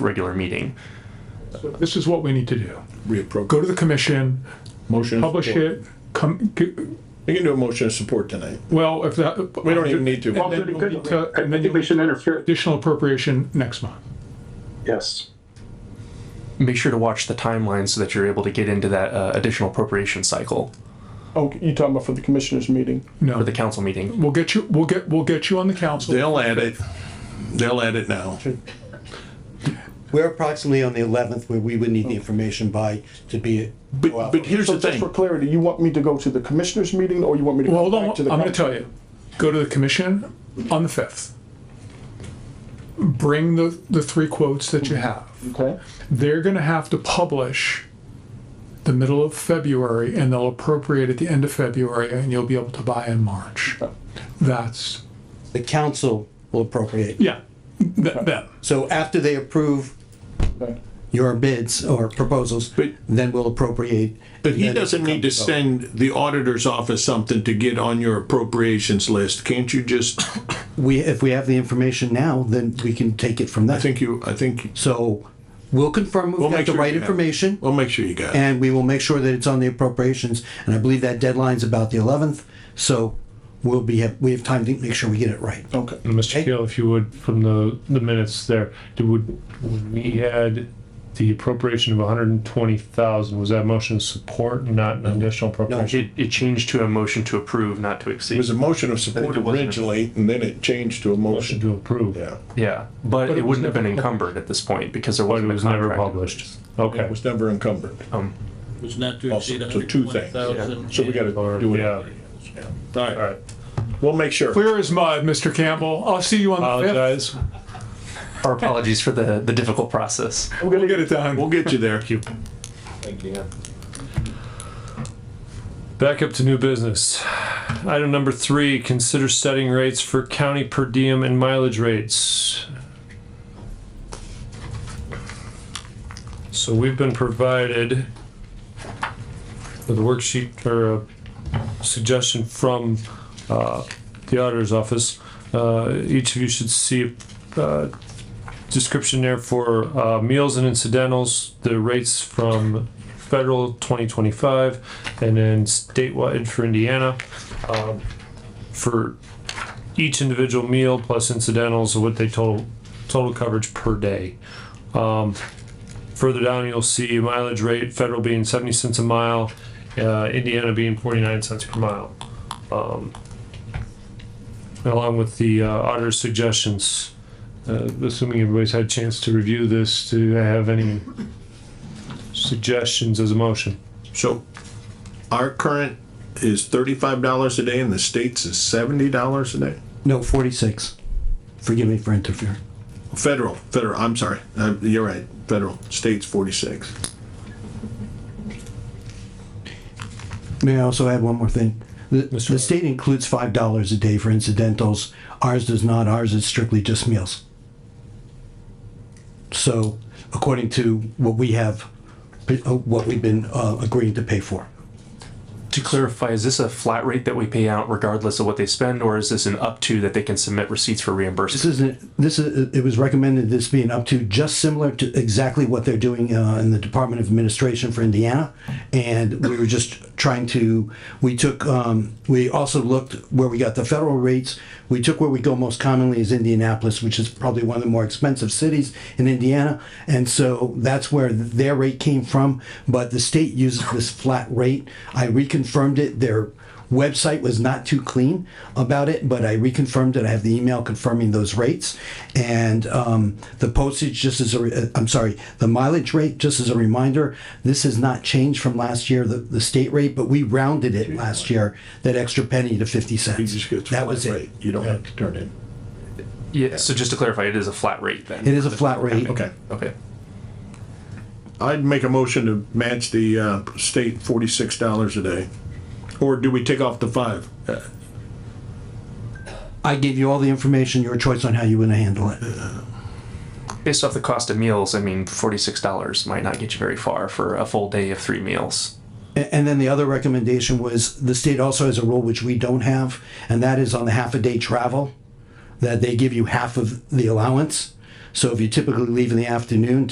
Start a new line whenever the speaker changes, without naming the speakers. regular meeting.
This is what we need to do.
reappropriate.
Go to the commission,
Motion.
publish it, come, g-
We can do a motion of support tonight.
well, if that.
We don't even need to.
Well, then you'll need to- And then you'll
shouldn't interfere.
additional appropriation next month.
Yes.
Make sure to watch the timeline so that you're able to get into that uh, additional appropriation cycle
Oh, you talking about for the commissioners meeting?
for
No,
the council meeting.
we'll get you, we'll get, we'll get you on the council.
They'll add it. They'll add it now.
We're approximately on the eleventh where we would need the information by to be.
But, but here's
So
the
just for
thing.
clarity, you want me to go to the commissioners meeting or you want me to?
Well,
go
hold on,
back to the
I'm gonna
council?
tell you. Go to the commission on the fifth. Bring the, the three quotes that you have.
Okay,
They're gonna have to publish the middle of February and they'll appropriate at the end of February and you'll be able to buy in March. That's,
The council will appropriate.
yeah, th- them.
So after they approve
okay.
your bids or proposals,
But-
then we'll appropriate.
But he
Then it
doesn't need to
becomes a vote.
send the auditor's office something to get on your appropriations list. Can't you just,
We, if we have the information now, then we can take it from
I
there.
think you, I think,
So we'll confirm
We'll
we've got
make
the
sure
right
you have it.
information.
we'll make sure you got it.
and we will make sure that it's on the appropriations. And I believe that deadline's about the eleventh, so we'll be, we have time to make sure we get it right.
Mr. Keel, if you would, from the, the minutes there, do, would, when we had the appropriation of hundred and twenty thousand, was that motion of support, not an additional appropriation?
It, it changed to a motion to approve, not to
It was
exceed.
a motion of support
it wasn't.
originally, and then it changed to a
Motion
motion.
to approve,
Yeah,
Yeah, but, it,
it was
wouldn't have been encumbered at this point because there
but
wasn't
it
a
was never
contract.
published.
it
Okay. Um,
was never encumbered.
was not to
Also,
exceed
so two things.
120,000.
So we gotta
Or-
do it.
yeah.
All
All right,
We'll make sure.
Clear as mud, Mr. Campbell. I'll see you on the fifth.
apologize.
Our apologies for the, the difficult process.
We'll get it done.
We'll get you there.
Back up to new business. Item number three, consider setting rates for county per diem and mileage rates. So we've been provided with a worksheet or a suggestion from uh, the auditor's office. Uh, Each of you should see a description there for uh, meals and incidentals, the rates from federal 2025 and then statewide for Indiana. Um, For each individual meal plus incidentals, what they total, total coverage per day. Um, Further down, you'll see mileage rate, federal being 70 cents a mile, uh, Indiana being 49 cents per mile. Um, Along with the uh, auditor's suggestions, uh, assuming everybody's had a chance to review this, to have any suggestions as a motion.
So our current is thirty-five dollars a day and the state's is seventy dollars a day?
No, forty-six. Forgive me for interfering.
Federal, federal, I'm sorry, Uh, you're right, federal, state's forty-six.
May I also add one more thing? The,
Mr.
the state includes five dollars a day for incidentals. Ours does not. Ours is strictly just meals. So according to what we have, what we've been uh, agreeing to pay for.
To clarify, is this a flat rate that we pay out regardless of what they spend, or is this an up to that they can submit receipts for
This
reimbursement?
isn't, this is, it was recommended this being up to just similar to exactly what they're doing uh, in the Department of Administration for Indiana. And we were just trying to, we took, um, we also looked where we got the federal rates. We took where we go most commonly is Indianapolis, which is probably one of the more expensive cities in Indiana. And so that's where their rate came from, but the state uses this flat rate. I reconfirmed it. Their website was not too clean about it, but I reconfirmed it. I have the email confirming those rates. And um, the postage, just as a, re- uh, I'm sorry, the mileage rate, just as a reminder, this has not changed from last year, the, the state rate, but we rounded it last year, that extra penny to 50
You
cents.
just get
That was
flat
it.
rate. You don't have to turn in.
Yeah, so just to clarify, it is a flat rate then?
It is a flat rate.
Okay,
Okay.
I'd make a motion to match the, uh, state forty-six dollars a day. Or do we take off the five? Uh,
I gave you all the information, your choice on how you want to handle it.
Based off the cost of meals, I mean, forty-six dollars might not get you very far for a full day of three meals.
A- And then the other recommendation was the state also has a rule which we don't have, and that is on the half a day travel, that they give you half of the allowance. So if you typically leave in the afternoon,